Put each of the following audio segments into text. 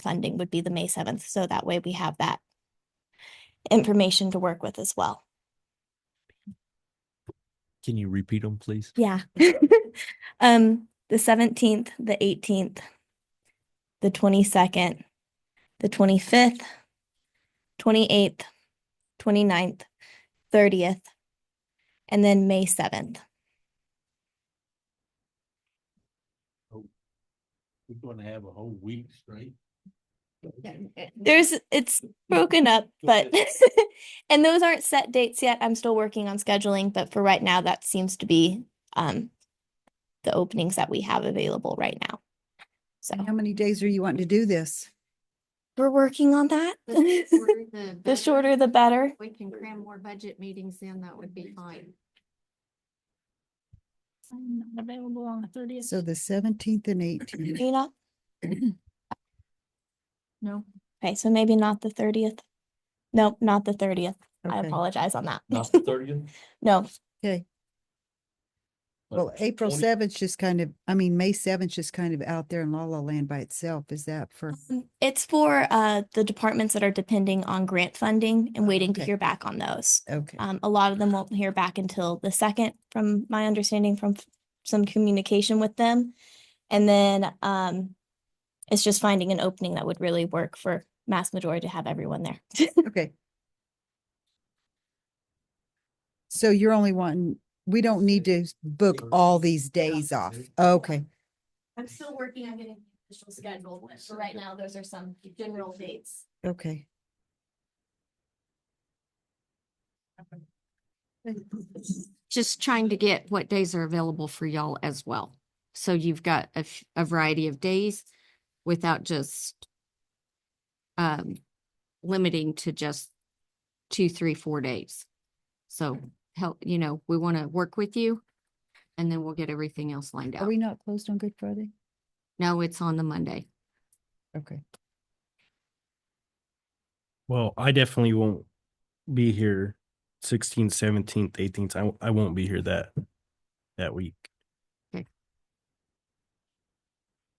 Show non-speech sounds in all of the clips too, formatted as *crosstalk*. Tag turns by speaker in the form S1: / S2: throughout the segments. S1: funding would be the May seventh, so that way we have that information to work with as well.
S2: Can you repeat them, please?
S1: *laughs* Yeah. um, the seventeenth, the eighteenth, the twenty-second, the twenty-fifth, twenty-eighth, twenty-ninth, thirtieth, and then May seventh.
S3: We're gonna have a whole week straight.
S1: There's, it's broken
S4: *laughs*
S1: up, but, *laughs* and those aren't set dates yet. I'm still working on scheduling, but for right now, that seems to be, um, the openings that we have available right now. So
S4: How many days are you wanting to do this?
S1: we're working on that. *laughs* The
S5: The
S1: shorter, *laughs* the *laughs* better.
S5: We can cram more budget meetings in, that would be fine.
S6: I'm not available on the thirtieth.
S4: So the seventeenth and eighteenth.
S1: You know,
S6: No,
S1: okay, so maybe not the thirtieth. Nope, not the thirtieth. *clears throat* I
S4: Okay.
S1: apologize on that.
S2: Not the thirtieth?
S1: No,
S4: Well, April seventh just kind of, I mean, May seventh just kind of out there in La La Land by itself. Is
S1: *laughs*
S4: that for,
S1: um, it's for, uh, the departments that are depending on grant funding and
S4: Oh,
S1: waiting to
S4: okay.
S1: hear back on those.
S4: okay,
S1: Um, a lot of them won't hear back until the second, from my understanding, from f- some communication with them. And then, um, it's just finding an opening that would really work for mass majority to have everyone there.
S4: okay. So you're only wanting, we don't need to book all these days off. Okay,
S1: I'm still working on getting the official schedule, but for right now, those are some general dates.
S4: okay.
S5: Just trying to get what days are available for y'all as well. So you've got a, f- a variety of days without just um, limiting to just two, three, four days. So help, you know, we want to work with you and then we'll get everything else lined
S4: Are
S5: out.
S4: we not closed on Good Friday?
S5: No, it's on the Monday.
S4: Okay.
S7: Well, I definitely won't be here 16th, 17th, 18th. I, w- I won't be here that that week.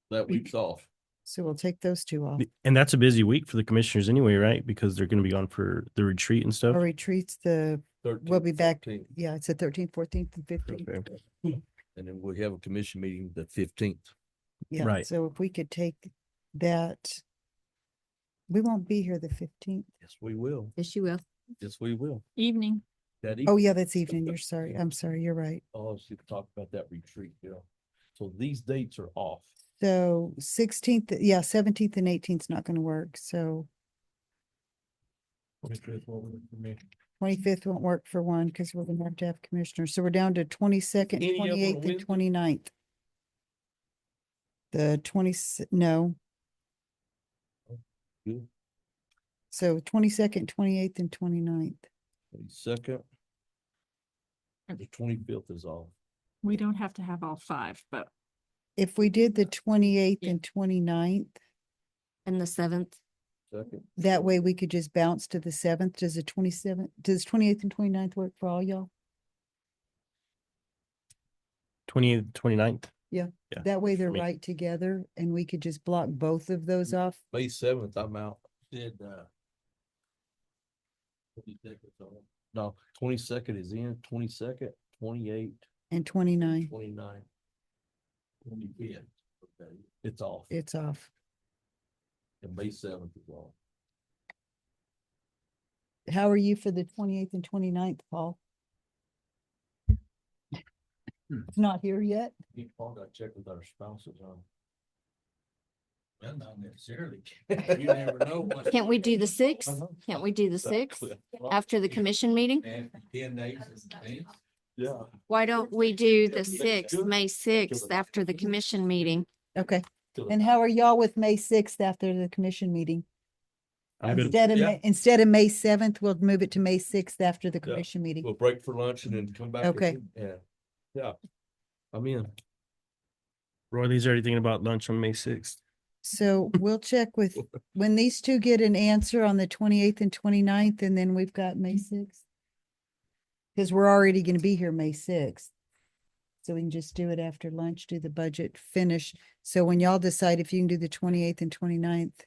S3: That week's off.
S4: So we'll take those two off.
S7: B- And that's a busy week for the commissioners anyway, right? Because they're going to be on for the retreat and stuff.
S4: Our retreats, the,
S3: 13th,
S4: be back.
S3: 14th,
S4: yeah, it's the thirteenth, fourteenth and fifteenth.
S7: Okay.
S3: And then we have a commission meeting the fifteenth.
S4: Yeah,
S7: Right.
S4: so if we could take that. We won't be here the fifteenth.
S3: Yes, we will.
S5: Yes, you will.
S3: Yes, we will.
S6: evening.
S3: That
S4: Oh,
S3: evening,
S4: yeah, that's evening. You're sorry. I'm sorry. You're right.
S3: oh, she talked about that retreat, yeah. So these dates are off.
S4: So sixteenth, yeah, seventeenth and eighteenth is not gonna work. So twenty-fifth won't work for one because we're gonna have to have commissioners. So we're down to twenty-second,
S3: Any of 'em on
S4: twenty-eighth and
S3: Wednesday?
S4: 29th. The twenty, no.
S3: Good.
S4: So twenty-second, twenty-eighth and 29th.
S3: Second. The twenty-fifth is off.
S6: We don't have to have all five, but
S4: If we did the twenty-eighth
S6: Yeah.
S4: and 29th.
S5: And the seventh,
S3: Second,
S4: That way we could just bounce to the seventh. Does the twenty-seventh, does twenty-eighth and 29th work for all y'all?
S7: 28th, 29th. Yeah,
S4: That way
S7: for
S4: they're
S7: me. Mm-hmm.
S4: right together and we could just block both of those off.
S3: May seventh, I'm out. Did, uh. 22nd 's on. No, twenty-second is in, twenty-second, twenty-eight,
S4: And twenty-nine,
S3: twenty-nine. Twenty-fifth, okay, it's off.
S4: it's off.
S3: And May seventh is off.
S4: How are you for the twenty-eighth and 29th, Paul?
S7: Hmm.
S4: It's Not here yet?
S3: Need to call that check with our spouses on. Well, not necessarily. *laughs* You never know. what-
S5: can't we do the sixth?
S3: Uh-huh.
S5: Can't we do the sixth after the
S3: Yeah.
S5: commission meeting?
S3: And ten days is ten. Yeah.
S5: Why don't we do
S3: Yeah,
S5: the
S3: yeah,
S5: sixth,
S3: good.
S5: May sixth, after the commission meeting?
S4: Okay.
S3: Till the-
S4: And how are y'all with May sixth after the commission meeting?
S7: I'm good.
S4: Instead of,
S3: Yeah.
S4: Ma- instead of May seventh, we'll move it to May sixth after the
S3: Yeah.
S4: commission meeting.
S3: We'll break for lunch and then come back.
S4: Okay.
S3: again. Yeah, yeah. I'm in.
S7: Roy Lee's already thinking about lunch on May 6th.
S4: So we'll check with, when these two get an answer on the twenty-eighth and 29th, and then we've got May sixth. Because we're already gonna be here May sixth. So we can just do it after lunch, do the budget, finish. So when y'all decide if you can do the twenty-eighth and 29th,